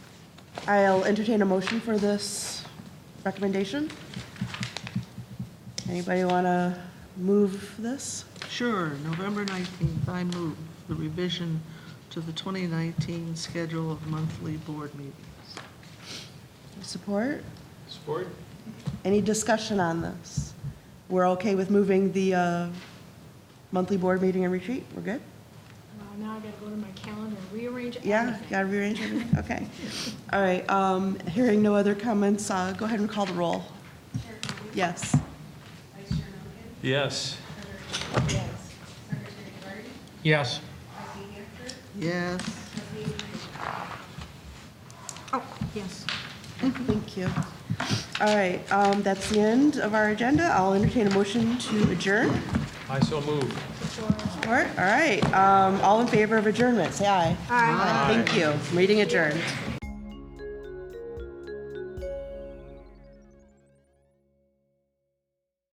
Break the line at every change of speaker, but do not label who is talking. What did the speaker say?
I'll entertain a motion for this recommendation. Anybody want to move this?
Sure, November 19th, I move the revision to the 2019 schedule of monthly board meetings.
Support?
Support?
Any discussion on this? We're okay with moving the uh, monthly board meeting and retreat? We're good?
Well, Uh, Now I gotta go to my calendar and rearrange everything.
Yeah, got to rearrange everything? Okay. All right, um, hearing no other comments, uh, go ahead and call the roll. Yes.
Yes.
Yes.
Yes,
Oh, yes.
Thank you. All right, um, that's the end of our agenda. I'll entertain a motion to adjourn.
I so move.
All right, all right, um, all in favor of adjournment, say aye. Aye. Thank you. Meeting adjourned.